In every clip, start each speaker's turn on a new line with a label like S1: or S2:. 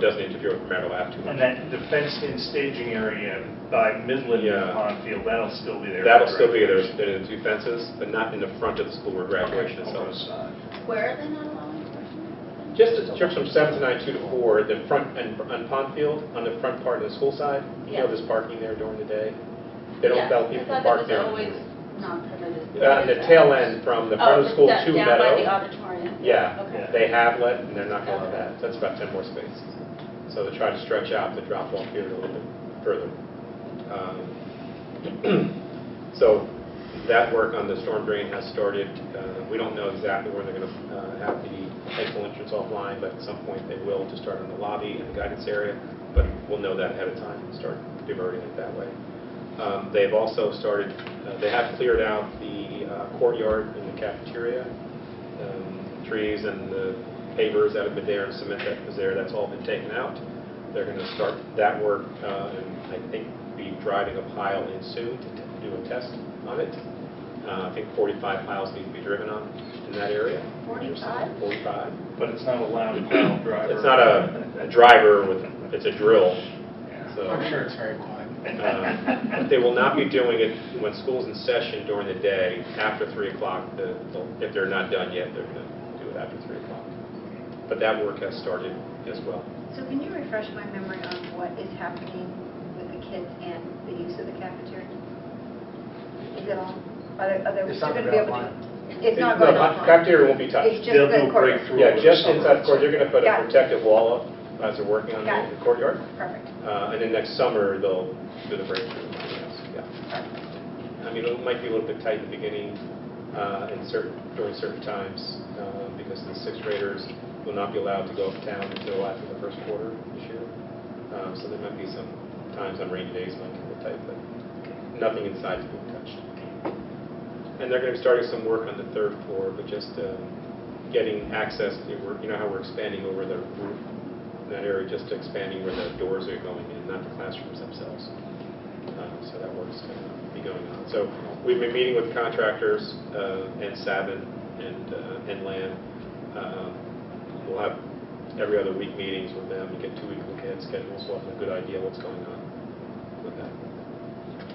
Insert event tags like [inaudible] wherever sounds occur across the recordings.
S1: doesn't interfere with Meadow Ave too much.
S2: And that, the fenced-in staging area by Midland
S1: Yeah.
S2: and Pond Field, that'll still be there.
S1: That'll still be, there's, there are two fences, but not in the front of the school where graduation is held.
S3: Where are they not allowing freshmen?
S1: Just the trips from seven to nine, two to four, the front, and on Pond Field, on the front part of the school side, you know,
S3: Yeah.
S1: there's parking there during the day. They don't
S3: Yeah,
S1: allow people to park there.
S3: I thought that was always not permitted.
S1: Uh, the tail end from the front of the school
S3: Oh,
S1: to
S3: down by
S1: Meadow,
S3: the auditorium?
S1: Yeah.
S3: Okay.
S1: they have let, and they're not going to
S3: Okay.
S1: that. That's about ten more spaces. So they try to stretch out the drop-off period a little bit further. Um, [clears throat] So that work on the storm drain has started. Uh, We don't know exactly where they're going to have the exit entrance offline, but at some point they will to start in the lobby and the guidance area, but we'll know that ahead of time and start diverting it that way. Um, They've also started, uh, they have cleared out the uh, courtyard and the cafeteria, um, trees and the pavers that have been there and cement that was there, that's all been taken out. They're going to start that work, uh, and I think be driving a pile in soon to t- do a test on it. Uh, I think 45 piles need to be driven on in that area.
S3: 45?
S1: 45.
S2: But it's not allowed in
S1: [clears throat]
S2: Pond Driver.
S1: It's not a a driver with, it's a drill,
S2: Yeah.
S1: so.
S4: I'm sure it's very quiet.
S1: Um,
S4: [laughs]
S1: But they will not be doing it when school's in session during the day, after 3 o'clock. The- they'll- If they're not done yet, they're going to do it after 3 o'clock. But that work has started as well.
S5: So can you refresh my memory on what is happening with the kids and the use of the cafeteria? Is it all, are they, are they
S4: It's
S5: still
S4: not
S5: going to be able to?
S4: online.
S5: It's not
S1: No,
S5: going
S1: ca-
S5: on.
S1: Cafeteria won't be
S5: It's
S1: touched.
S5: just
S2: They'll do
S5: the
S2: a
S5: court.
S2: breakthrough.
S1: Yeah, just inside the court, they're going to put
S5: Got
S1: a
S5: it.
S1: protective wall up as they're working on
S5: Got
S1: the
S5: it.
S1: the courtyard.
S5: Perfect.
S1: Uh, And then next summer, they'll do the breakthrough. yes, yeah. I mean, it might be a little bit tight in the beginning uh, in certain, during certain times uh, because the sixth graders will not be allowed to go uptown until after the first quarter this year. Um, So there might be some times on rainy days might get a little tight, but nothing inside's being touched. And they're going to be starting some work on the third floor, but just uh, getting access, to we're- you know how we're expanding over the roof in that area, just expanding where the doors are going in, not the classrooms themselves. Um, So that work's going to be going on. So we've been meeting with contractors uh, and Sabin and uh, and Lamb. Um, We'll have every other week meetings with them, get two-week look ahead schedules, we'll have a good idea what's going on with that.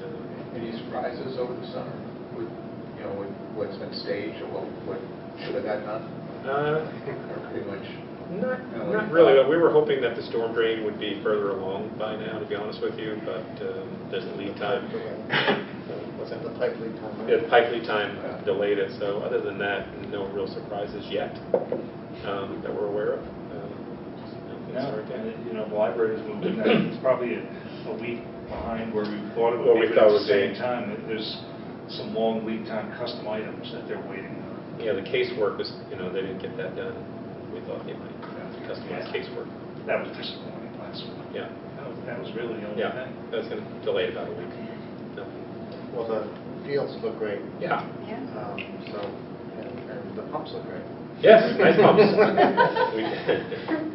S1: Uh,
S4: Any surprises over the summer with, you know, with what's been staged or what, what should have got
S1: [laughs]
S4: done?
S1: Uh,
S4: Or pretty much,
S1: Not,
S4: No, what
S1: not
S4: you
S1: Uh, really.
S4: thought.
S1: We were hoping that the storm drain would be further along by now, to be honest with you, but um, there's a lead time. Uh, [laughs] What's that?
S6: The pipe lead time.
S1: Yeah, the pipe lead time delayed it, so other than that, no real surprises yet um, that we're aware of. Um, just, you know,
S2: No,
S1: things
S2: and
S1: like
S2: it- you know, the library's moving, that. it's probably a a week behind where we thought it
S1: What we
S2: would be,
S1: thought
S2: but at
S1: would
S2: the
S1: be.
S2: same time, that there's some long lead time custom items that they're waiting on.
S1: that. Yeah, the casework was, you know, they didn't get that done. We thought they might customize casework.
S2: That was disappointing last week.
S1: Yeah,
S2: That was- That was really the only
S1: yeah,
S2: thing.
S1: that's going to delay it about a week. No.
S6: Well, the fields look great,
S1: Yeah.
S5: Yeah.
S6: um, so, and and the pumps look great. [laughs]
S1: Yes, nice pumps. We-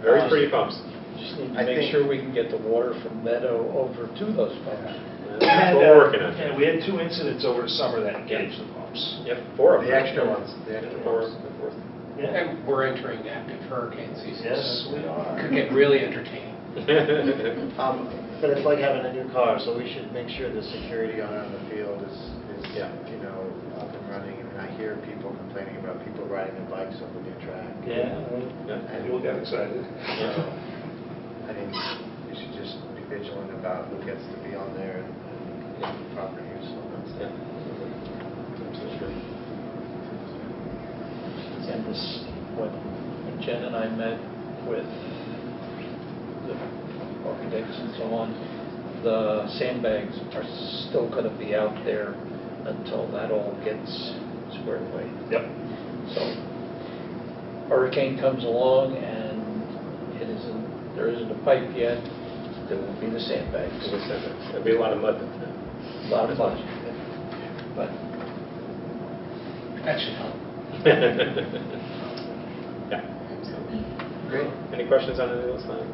S1: Very pretty pumps.
S7: Just need
S6: I
S7: to
S6: think-
S7: make sure we can get the water from Meadow over to those pumps.
S1: That's what we're working on.
S2: And we had two incidents over the summer that engaged the pumps.
S1: Yep, four of them.
S6: The extra ones, the extra
S1: Four,
S6: ones.
S1: the [laughs] fourth.
S2: Yeah.
S4: and we're entering active hurricane season.
S2: Yes,
S4: so
S2: we are.
S4: it Could get really entertaining.
S6: Um, But it's like having a new car, so we should make sure the security on on the field is, is,
S1: Yeah.
S6: you know, up and running. And I hear people complaining about people riding their bikes over the track.
S2: Yeah, people got excited.
S6: So, I think we should just be vigilant about who gets to be on there and- and proper use of that stuff.
S7: And this, when Jen and I met with the architects and so on, the sandbags are still going to be out there until that all gets squared away.
S2: Yep.
S7: So hurricane comes along and it isn't, there isn't a pipe yet, there will be the sandbags.
S1: There'll be a lot of mud. [laughs] that time.
S7: A lot of fun. But
S4: That should help.
S1: Yeah.
S6: Great.
S1: Any questions on any of those lines?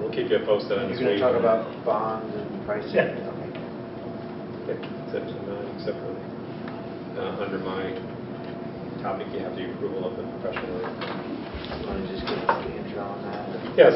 S1: We'll keep you posted on
S6: You're
S1: this
S6: going to
S1: week.
S6: talk about bond and pricing?
S2: Yeah.
S6: Okay.
S1: Yeah, Except, for mine, except for, uh, under my topic, you have the approval of the professional
S7: Want to just get a draw on that?
S6: Yes,